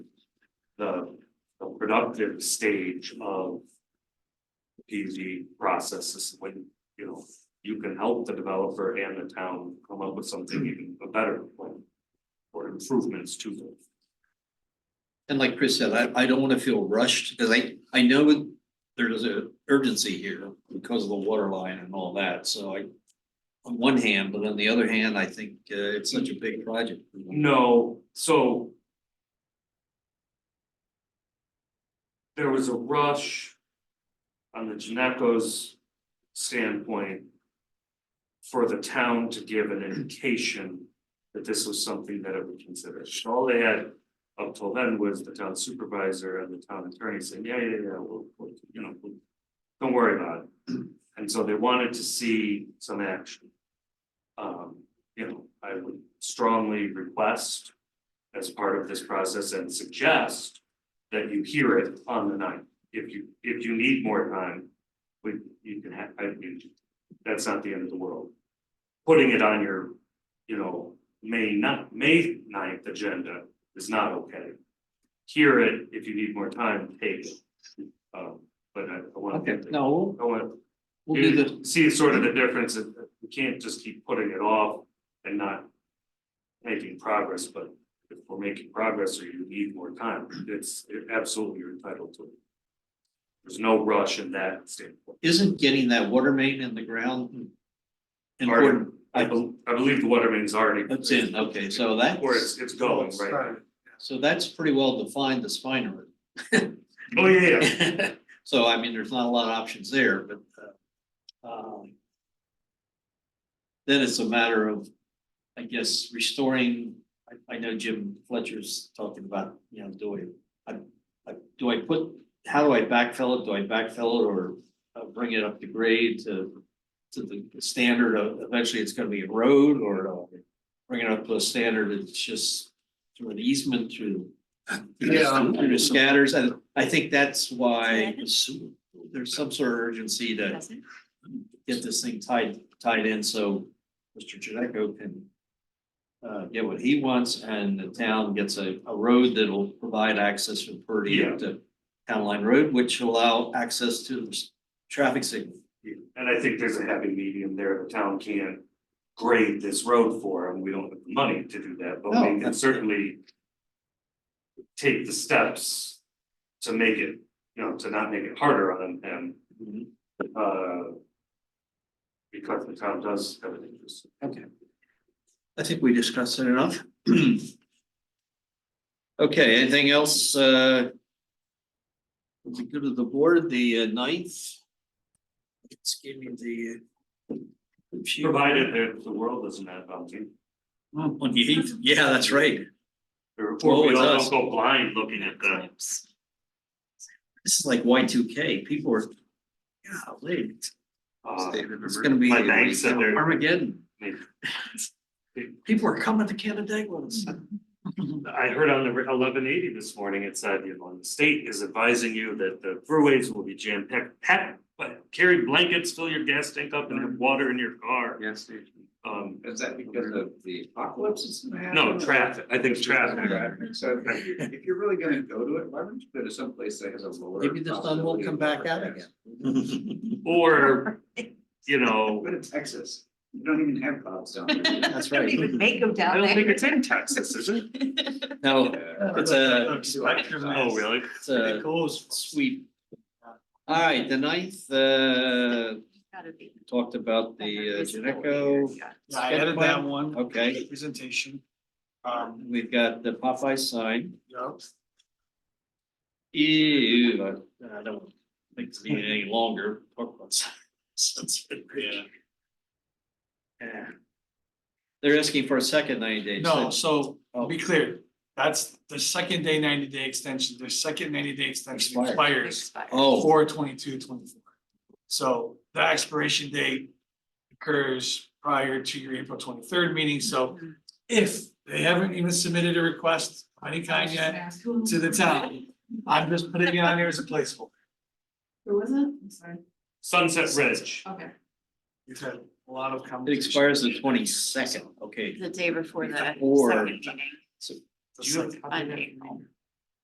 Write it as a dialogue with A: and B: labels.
A: the, the productive stage of. P Z process is when, you know, you can help the developer and the town come up with something even a better plan. Or improvements to them.
B: And like Chris said, I, I don't wanna feel rushed, because I, I know there's a urgency here because of the water line and all that, so I. On one hand, but on the other hand, I think, uh, it's such a big project.
A: No, so. There was a rush. On the Janeco's standpoint. For the town to give an indication that this was something that it would consider. All they had up till then was the town supervisor and the town attorney saying, yeah, yeah, yeah, we'll, we'll, you know, we'll- don't worry about it. And so they wanted to see some action. Um, you know, I would strongly request as part of this process and suggest that you hear it on the ninth. If you, if you need more time, we, you can have, I mean, that's not the end of the world. Putting it on your, you know, May not, May 9th agenda is not okay. Hear it, if you need more time, take it. Um, but I I want.
B: Okay, no, we'll-
A: I want,
B: we'll do the,
A: you see sort of the difference, that we can't just keep putting it off and not making progress, but if we're making progress or you need more time, it's absolutely you're entitled to it. There's no rush in that standpoint.
B: isn't getting that water main in the ground
A: Already,
B: important?
A: I bel- I believe the water main's already.
B: That's in, okay, so
A: Or
B: that's,
A: it's, it's going, right?
B: so that's pretty well defined, the spine of it.
A: Oh, yeah, yeah.
B: So I mean, there's not a lot of options there, but uh, um, then it's a matter of, I guess, restoring, I I know Jim Fletcher's talking about, you know, do I, I, I, do I put, how do I backfill it? Do I backfill it or uh, bring it up to grade to to the standard of, eventually it's gonna be a road or do I bring it up to a standard that's just through an easement through
C: Yeah.
B: through the scatters, and I think that's why
D: Second.
B: there's some sort of urgency to
D: Doesn't.
B: get this thing tied, tied in, so Mr. Janeco can uh, get what he wants, and the town gets a, a road that'll provide access from Purdy
A: Yeah.
B: up to Town Line Road, which will allow access to the s- traffic signal.
A: And I think there's a happy medium there. The town can't grade this road for them. We don't have the money to do that, but
B: No,
A: we can
B: that's-
A: certainly. Take the steps to make it, you know, to not make it harder on them and, uh. Because the town does have an interest.
B: Okay. I think we discussed it enough. Okay, anything else, uh? Would be good to the board, the uh, ninth? It's giving the. uh,
A: Provided that the world doesn't have bounty.
B: Oh, On the eighth, yeah, that's right.
A: Or
B: Well,
A: or we
B: it's
A: all
B: us.
A: don't go blind looking at the,
B: This is like Y two K, people are. Yeah, late.
A: uh,
B: It's gonna be.
A: My bank said they're-
B: Armageddon.
A: maybe-
B: People are coming to Canandaigua.
A: I heard on the eleven eighty this morning, it said, you know, the state is advising you that the throughways will be jam packed, packed. But carry blankets, fill your gas tank up and have water in your car.
C: Gas station.
A: Um,
C: Is that because of the apocalypse is gonna happen?
A: no, traffic, I think traffic.
C: Traffic. So if you- if you're really gonna go to it, why don't you go to someplace that has a lower.
B: Maybe the sun won't
C: possibility
B: come
C: of
B: back out
C: overcast?
B: again.
A: Or, you know,
C: Go to Texas. You don't even have clouds down there.
B: That's
D: Don't
B: right.
D: even make them
A: I
D: down
A: don't think
D: there.
A: it's in Texas, is it?
B: No,
C: Yeah.
B: It's a-
A: Oh, really?
B: it's a
A: Uh,
B: sweet. All right, the ninth, uh,
D: Gotta be.
B: talked about the uh, Janeco.
D: Yeah.
E: Yeah, I added that one.
B: Okay.
E: Presentation. Um,
B: We've got the Popeye sign.
E: yeah,
B: Ew,
E: uh,
B: I- I don't think it's needed any longer. Talk about signs. That's good.
E: Yeah.
B: Yeah. They're asking for a second ninety days.
E: no, so to be
B: Oh.
E: clear, that's the second day ninety day extension, their second ninety day extension
B: Expires.
E: expires
B: Oh,
E: four twenty-two twenty-four. So the expiration date occurs prior to your April twenty-third meeting, so
D: Mm-hmm.
E: if they haven't even submitted a request of any kind yet to the town, I'm just putting it on here as a placeholder.
D: Who was it? I'm sorry.
A: Sunset Ridge.
D: Okay.
E: We've had a lot of
B: it
E: conversations.
B: expires the twenty second. Okay,
D: The day before the
B: Or-
D: second meeting.
E: The second-
D: on April.